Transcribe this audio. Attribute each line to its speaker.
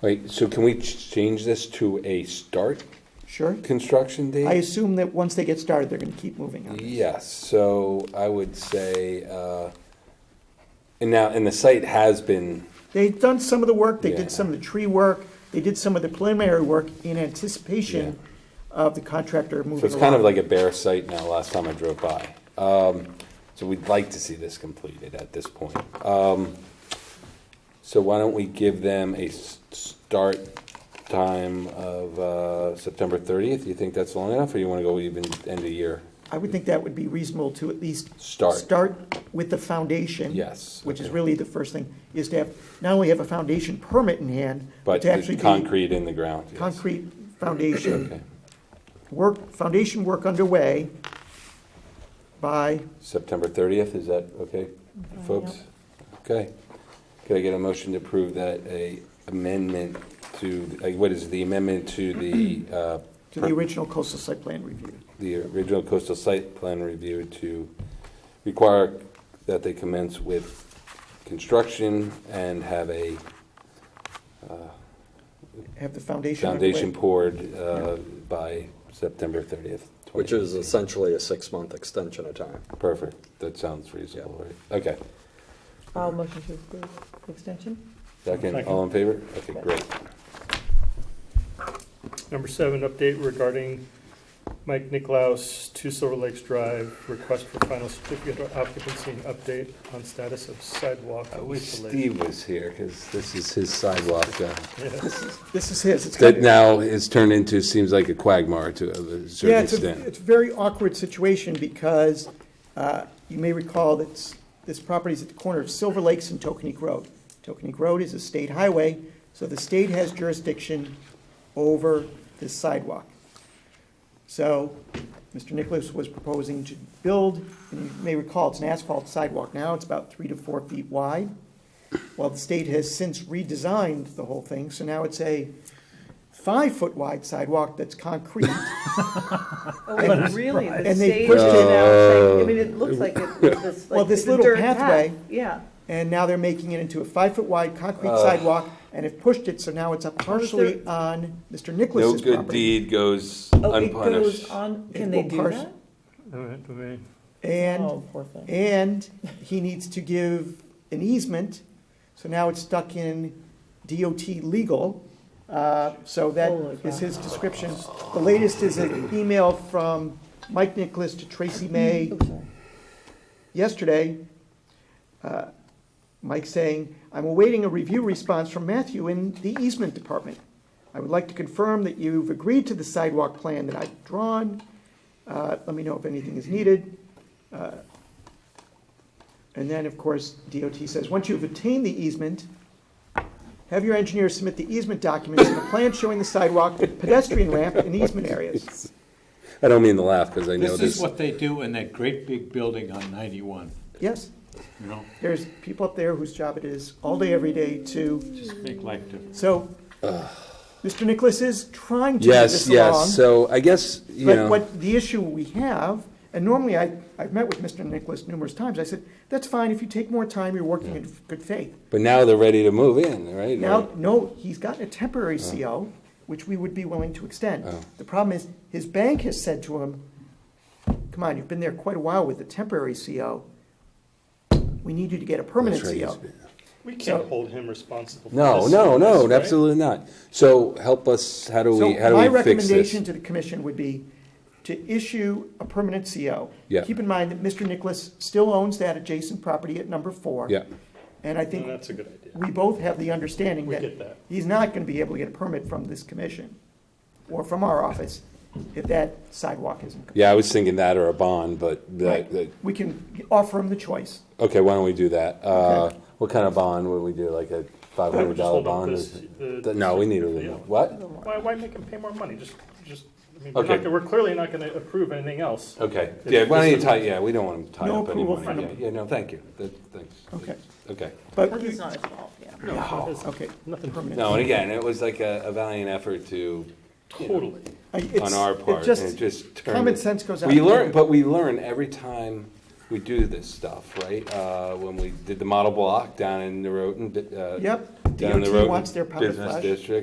Speaker 1: Wait, so can we ch- change this to a start
Speaker 2: Sure.
Speaker 1: construction date?
Speaker 2: I assume that once they get started, they're gonna keep moving on. this.
Speaker 1: Yes, so I would say, uh, and now, and the site has been,
Speaker 2: They've done some of the work, they
Speaker 1: Yeah.
Speaker 2: did some of the tree work, they did some of the preliminary work in anticipation of the contractor moving along.
Speaker 1: so it's kind of like a bare site now, last time I drove by. Um, So we'd like to see this completed at this point. Um, So why don't we give them a s- start time of uh, September 30th? You think that's long enough, or you want to go even end of year?
Speaker 2: I would think that would be reasonable to at least.
Speaker 1: Start.
Speaker 2: with the foundation.
Speaker 1: Yes,
Speaker 2: Which is
Speaker 1: okay.
Speaker 2: really the first thing, is to have, not only have a foundation permit in hand, but
Speaker 1: But
Speaker 2: to actually
Speaker 1: the
Speaker 2: be.
Speaker 1: concrete in the ground, yes.
Speaker 2: Concrete foundation,
Speaker 1: Okay,
Speaker 2: work, foundation work underway by,
Speaker 1: September 30th, is that okay, folks? Okay. Could I get a motion to approve that a amendment to, uh, what is the amendment to the, uh,
Speaker 2: to the original coastal site plan review.
Speaker 1: the original coastal site plan review to require that they commence with construction and have a
Speaker 2: Have the foundation underway.
Speaker 1: foundation poured uh, by September 30th?
Speaker 3: Which is essentially a six-month extension of time.
Speaker 1: Perfect, that sounds reasonable, right? Okay.
Speaker 4: I'll motion to approve the extension.
Speaker 1: Second, all in favor? Okay, great.
Speaker 5: Number seven, update regarding Mike Nicklaus, Two Silver Lakes Drive, request for final certificate of occupancy and update on status of sidewalk.
Speaker 1: I
Speaker 5: at
Speaker 1: wish
Speaker 5: Easter Lake.
Speaker 1: Steve was here, because this is his sidewalk. uh,
Speaker 2: This is his, it's got.
Speaker 1: That now has turned into, seems like a quagmire to a
Speaker 2: Yeah,
Speaker 1: certain
Speaker 2: it's a,
Speaker 1: extent.
Speaker 2: it's a very awkward situation because uh, you may recall that s- this property is at the corner of Silver Lakes and Tokenique Road. Tokenique Road is a state highway, so the state has jurisdiction over this sidewalk. So Mr. Nicholas was proposing to build, and you may recall, it's an asphalt sidewalk now, it's about three to four feet wide. Well, the state has since redesigned the whole thing, so now it's a five-foot wide sidewalk that's concrete.
Speaker 4: Oh, really? The
Speaker 2: And they
Speaker 4: stage is
Speaker 2: pushed
Speaker 4: now
Speaker 2: it-
Speaker 4: saying, I mean, it looks like it, this,
Speaker 2: Well,
Speaker 4: like
Speaker 2: this
Speaker 4: it's a
Speaker 2: little
Speaker 4: dirt path.
Speaker 2: pathway-
Speaker 4: Yeah.
Speaker 2: And now they're making it into a five-foot-wide concrete sidewalk, and have pushed it, so now it's up partially on Mr.
Speaker 1: No
Speaker 2: Nicholas's
Speaker 1: good
Speaker 2: property.
Speaker 1: deed goes
Speaker 4: Oh, it
Speaker 1: unpunished.
Speaker 4: goes on,
Speaker 2: It
Speaker 4: can they
Speaker 2: will
Speaker 4: do
Speaker 2: parse-
Speaker 4: that?
Speaker 5: All right, I mean,
Speaker 2: And,
Speaker 4: Oh, poor thing.
Speaker 2: and he needs to give an easement, so now it's stuck in DOT legal. Uh, So that
Speaker 4: Holy
Speaker 2: is
Speaker 4: cow.
Speaker 2: his description. The latest is an email from Mike Nicholas to Tracy May
Speaker 4: Oh, sorry.
Speaker 2: yesterday, uh, Mike saying, "I'm awaiting a review response from Matthew in the easement department. I would like to confirm that you've agreed to the sidewalk plan that I've drawn. Uh, Let me know if anything is needed." Uh, And then, of course, DOT says, "Once you've obtained the easement, have your engineer submit the easement documents and a plan showing the sidewalk, pedestrian ramp, and easement areas."
Speaker 1: I don't mean to laugh, because I know
Speaker 6: This is
Speaker 1: this.
Speaker 6: what they do in that great big building on 91,
Speaker 2: Yes,
Speaker 6: you know,
Speaker 2: there's people up there whose job it is all day, every day to
Speaker 6: just make life different.
Speaker 2: So, Mr. Nicholas is trying to move
Speaker 1: Yes,
Speaker 2: this along.
Speaker 1: yes, so I guess, you
Speaker 2: But
Speaker 1: know,
Speaker 2: what the issue we have, and normally I, I've met with Mr. Nicholas numerous times, I said, that's fine, if you take more time, you're working in good faith.
Speaker 1: but now they're ready to move in, right?
Speaker 2: Now, no, he's gotten a temporary CO, which we would be willing to extend.
Speaker 1: Uh. Oh.
Speaker 2: The problem is, his bank has said to him, come on, you've been there quite a while with a temporary CO. We need you to get a permanent
Speaker 1: That's right,
Speaker 2: CO.
Speaker 1: it's-
Speaker 5: We can't hold him responsible. for
Speaker 1: No,
Speaker 5: this,
Speaker 1: no,
Speaker 5: this,
Speaker 1: no,
Speaker 5: right?
Speaker 1: absolutely not. So help us, how do
Speaker 2: So
Speaker 1: we, how do
Speaker 2: my
Speaker 1: we fix this?
Speaker 2: recommendation to the commission would be to issue a permanent CO.
Speaker 1: Yeah.
Speaker 2: Keep in mind that Mr. Nicholas still owns that adjacent property at number four.
Speaker 1: Yeah,
Speaker 2: And I
Speaker 5: No,
Speaker 2: think
Speaker 5: That's a good idea.
Speaker 2: we both have the understanding
Speaker 5: We
Speaker 2: that
Speaker 5: get that.
Speaker 2: he's not going to be able to get a permit from this commission or from our office if that sidewalk isn't. complete.
Speaker 1: yeah, I was thinking that or a bond, but that,
Speaker 2: Right.
Speaker 1: that-
Speaker 2: We can offer him the choice.
Speaker 1: okay, why don't we do that? Uh,
Speaker 2: Okay.
Speaker 1: what kind of bond would we do, like a five
Speaker 5: Why don't
Speaker 1: hundred
Speaker 5: we just
Speaker 1: dollar
Speaker 5: hold up
Speaker 1: bond?
Speaker 5: this-
Speaker 1: or-
Speaker 5: the-
Speaker 1: No, we need a
Speaker 5: Yeah.
Speaker 1: little, what?
Speaker 5: Why, why make him pay more money? Just, just, I mean, we're
Speaker 1: Okay.
Speaker 5: not, we're clearly not gonna approve anything else.
Speaker 1: Okay,
Speaker 5: If
Speaker 1: yeah, why don't you
Speaker 5: this is-
Speaker 1: tie, yeah, we don't want to tie
Speaker 2: No
Speaker 1: up any
Speaker 2: approval
Speaker 1: money.
Speaker 2: from
Speaker 1: Yeah,
Speaker 2: them.
Speaker 1: Yeah, no, thank you, That- thanks.
Speaker 2: Okay.
Speaker 1: Okay.
Speaker 2: But,
Speaker 4: Well, it's not his fault, yeah.
Speaker 5: No, it's
Speaker 2: okay,
Speaker 5: Nothing
Speaker 2: permanent.
Speaker 1: No, and again, it was like a a valiant effort to,
Speaker 5: totally.
Speaker 2: I- it's-
Speaker 1: on our
Speaker 2: it
Speaker 1: part,
Speaker 2: just-
Speaker 1: and it just turned.
Speaker 2: common sense goes out
Speaker 1: We
Speaker 2: the
Speaker 1: learn,
Speaker 2: window.
Speaker 1: but we learn every time we do this stuff, right? Uh, When we did the model block down in Norotan, uh,
Speaker 2: Yep. DOT
Speaker 1: down the road.
Speaker 2: wants their powder
Speaker 1: Business
Speaker 2: flash.
Speaker 1: district.